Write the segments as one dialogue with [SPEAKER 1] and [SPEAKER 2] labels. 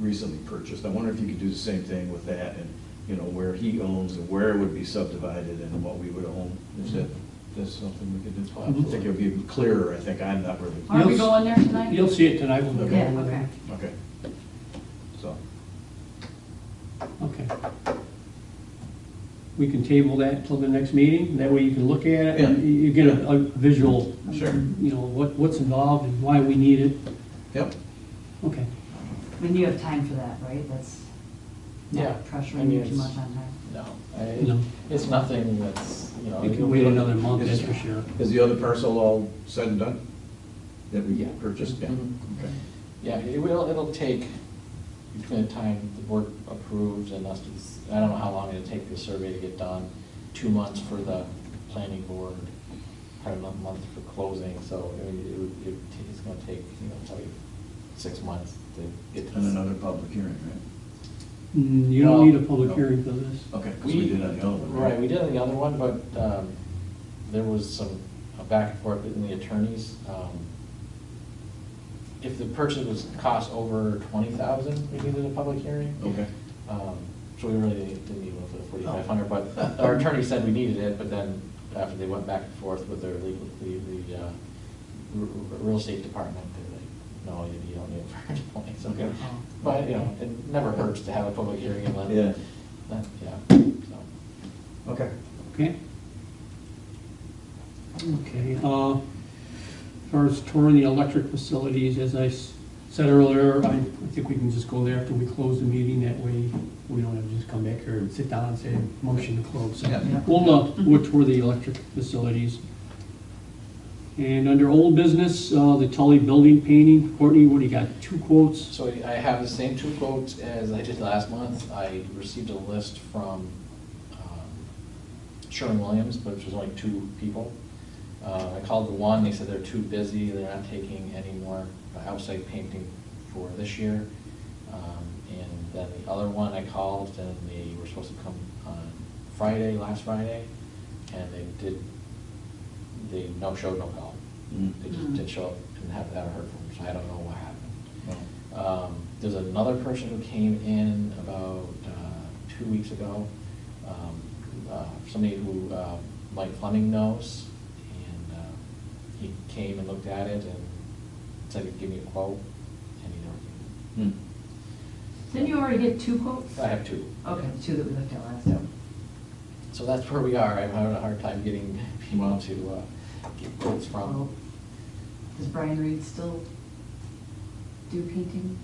[SPEAKER 1] recently purchased. I wonder if you could do the same thing with that and, you know, where he owns and where it would be subdivided and what we would own. Is that,
[SPEAKER 2] Mm-hmm.
[SPEAKER 1] that's something we could do? I think it would be clearer, I think. I'm not really.
[SPEAKER 3] Are we
[SPEAKER 4] You'll s-
[SPEAKER 3] going there tonight?
[SPEAKER 4] You'll see it tonight when we go
[SPEAKER 3] Yeah,
[SPEAKER 4] over there.
[SPEAKER 1] Okay. So,
[SPEAKER 4] Okay. We can table that till the next meeting, that way you can look at it, and
[SPEAKER 1] Yeah.
[SPEAKER 4] you you get a, a visual,
[SPEAKER 1] sure.
[SPEAKER 4] you know, what, what's involved and why we need it.
[SPEAKER 1] Yep.
[SPEAKER 4] Okay.
[SPEAKER 3] I mean, you have time for that, right? That's
[SPEAKER 2] Yeah,
[SPEAKER 3] not
[SPEAKER 2] I
[SPEAKER 3] pressuring
[SPEAKER 2] mean,
[SPEAKER 3] you too
[SPEAKER 2] it's-
[SPEAKER 3] much on time.
[SPEAKER 2] No,
[SPEAKER 4] No.
[SPEAKER 2] I- it's nothing that's, you know.
[SPEAKER 4] You
[SPEAKER 2] it'll
[SPEAKER 4] can wait
[SPEAKER 2] be-
[SPEAKER 4] another month, that's for sure.
[SPEAKER 1] Is the other parcel all said and done that we
[SPEAKER 2] Yeah.
[SPEAKER 1] purchased? Yeah.
[SPEAKER 2] Mhm.
[SPEAKER 1] Okay.
[SPEAKER 2] Yeah, it will, it'll take between the time the board approves and us, to s- I don't know how long it'll take the survey to get done. Two months for the planning board, probably a month for closing, so I mean, it would, it would ta- it's gonna take, you know, probably six months to get
[SPEAKER 1] And
[SPEAKER 2] this.
[SPEAKER 1] another public hearing, right?
[SPEAKER 4] Mm, You don't need a public
[SPEAKER 2] Well,
[SPEAKER 4] hearing for this.
[SPEAKER 1] Okay, because we did on the other one, right?
[SPEAKER 2] Right, we did on the other one, but um, there was some uh, back and forth in the attorneys. Um, If the purchase was cost over twenty thousand, we needed a public hearing.
[SPEAKER 1] Okay. Oh.
[SPEAKER 2] Um, So we really didn't need one for the forty-five hundred, but our attorney said we needed it, but then after they went back and forth with their legal, the, the uh, r- r- real estate department, they're like, no, you you don't need it for twenty, so,
[SPEAKER 1] Okay.
[SPEAKER 3] Oh.
[SPEAKER 2] but, you know, it never hurts to have a public hearing and let,
[SPEAKER 1] Yeah.
[SPEAKER 2] let- yeah, so.
[SPEAKER 1] Okay.
[SPEAKER 4] Okay? Okay, uh, as far as touring the electric facilities, as I s- said earlier, I I think we can just go there after we close the meeting, that way we don't have to just come back here and sit down and say, motion to close. So
[SPEAKER 1] Yeah.
[SPEAKER 4] We'll, uh, we'll tour the electric facilities. And under old business, uh, the Tully building painting, Courtney, what do you got, two quotes?
[SPEAKER 2] So I have the same two quotes as I did last month. I received a list from um, Sherwin-Williams, but it was only two people. Uh, I called the one, they said they're too busy, they're not taking any more outside painting for this year. Um, And then the other one I called, and they were supposed to come on Friday, last Friday, and they did, they no showed, no call.
[SPEAKER 1] Mm.
[SPEAKER 2] They just didn't show up and haven't haven't heard from them, so I don't know what happened.
[SPEAKER 1] Well,
[SPEAKER 2] Um, There's another person who came in about uh, two weeks ago, um, uh, somebody who uh, Mike Fleming knows, and uh, he came and looked at it and said he'd give me a quote, and he never gave
[SPEAKER 1] hmm.
[SPEAKER 3] Didn't you already get two quotes?
[SPEAKER 2] me. I have two.
[SPEAKER 3] Okay, the two that we looked at last
[SPEAKER 2] Yeah.
[SPEAKER 3] time.
[SPEAKER 2] So that's where we are, I'm having a hard time getting people to uh, get quotes
[SPEAKER 3] Well,
[SPEAKER 2] from.
[SPEAKER 3] Does Brian Reed still do painting?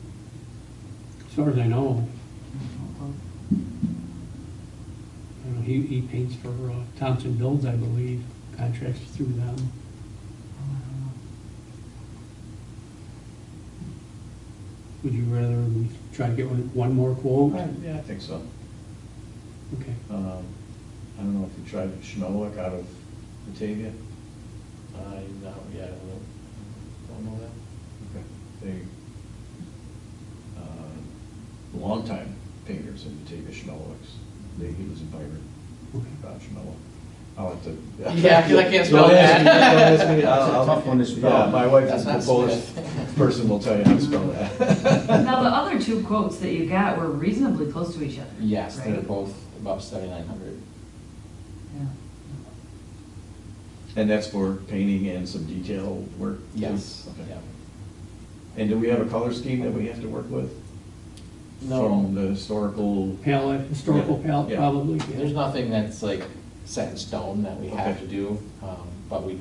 [SPEAKER 4] As far as I know,
[SPEAKER 3] I don't know.
[SPEAKER 4] I don't know, he, he paints for uh, Thompson Builds, I believe, contracts through them.
[SPEAKER 3] Oh, I don't know.
[SPEAKER 4] Would you rather we try to get one, one more quote?
[SPEAKER 1] I- Yeah, I think so.
[SPEAKER 4] Okay,
[SPEAKER 1] Um, I don't know if you tried Schmelwick out of Batavia.
[SPEAKER 2] I, no, yeah, I don't- don't know that.
[SPEAKER 1] Okay. They, uh, longtime painters in Batavia, Schmelwick's. They, he was a pirate,
[SPEAKER 4] okay.
[SPEAKER 1] Bob Schmelwick. I'll have to.
[SPEAKER 2] Yeah, 'cause I can't spell
[SPEAKER 1] Don't ask me-
[SPEAKER 2] that.
[SPEAKER 1] don't ask me. I'll-
[SPEAKER 5] That's a
[SPEAKER 1] I'll-
[SPEAKER 5] tough one to spell.
[SPEAKER 1] Yeah, my wife
[SPEAKER 2] That's
[SPEAKER 1] is
[SPEAKER 2] not
[SPEAKER 1] a Polish
[SPEAKER 2] Smith.
[SPEAKER 1] person, will tell you how to spell that.
[SPEAKER 3] Now, the other two quotes that you got were reasonably close to each other.
[SPEAKER 2] Yes, they're
[SPEAKER 3] right?
[SPEAKER 2] both about seventy-nine hundred.
[SPEAKER 3] Yeah.
[SPEAKER 1] And that's for painting and some detail work?
[SPEAKER 2] Yes,
[SPEAKER 1] Okay.
[SPEAKER 2] yeah.
[SPEAKER 1] And do we have a color scheme that we have to work with? From the historical?
[SPEAKER 4] Palette, historical
[SPEAKER 1] Yeah,
[SPEAKER 4] palette,
[SPEAKER 1] yeah.
[SPEAKER 4] probably, yeah.
[SPEAKER 2] There's nothing that's like set in stone that we have
[SPEAKER 1] Okay.
[SPEAKER 2] to do, um, but we,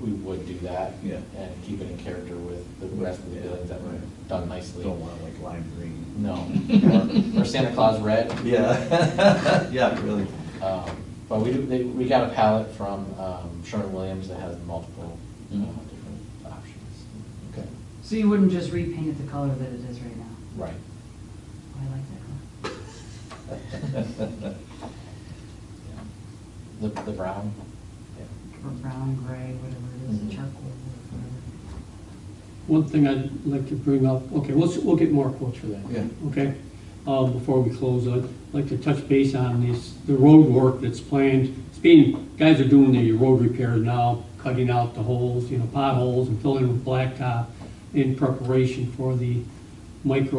[SPEAKER 2] we would do that.
[SPEAKER 1] Yeah.
[SPEAKER 2] And keep it in character with the
[SPEAKER 1] With-
[SPEAKER 2] rest of the
[SPEAKER 1] yeah,
[SPEAKER 2] buildings that were
[SPEAKER 1] right.
[SPEAKER 2] done nicely.
[SPEAKER 1] Don't want like lime green?
[SPEAKER 2] No. Or or Santa Claus red.
[SPEAKER 1] Yeah, yeah, really.
[SPEAKER 2] Um, But we, do- they- we got a palette from um, Sherwin Williams that has multiple uh,
[SPEAKER 1] Mhm.
[SPEAKER 2] different options.
[SPEAKER 1] Okay.
[SPEAKER 3] So you wouldn't just repaint it the color that it is right now?
[SPEAKER 2] Right.
[SPEAKER 3] Oh, I like that color.
[SPEAKER 2] Yeah. The, the brown. Yeah.
[SPEAKER 3] Or brown, gray, whatever it is,
[SPEAKER 2] Mhm.
[SPEAKER 3] charcoal, or whatever.
[SPEAKER 4] One thing I'd like to bring up, okay, we'll, s- we'll get more quotes for that.
[SPEAKER 1] Yeah.
[SPEAKER 4] Okay, um, before we close, I'd like to touch base on this, the road work that's planned. It's being, guys are doing the road repairs now, cutting out the holes, you know, potholes and filling with blacktop in preparation for the micro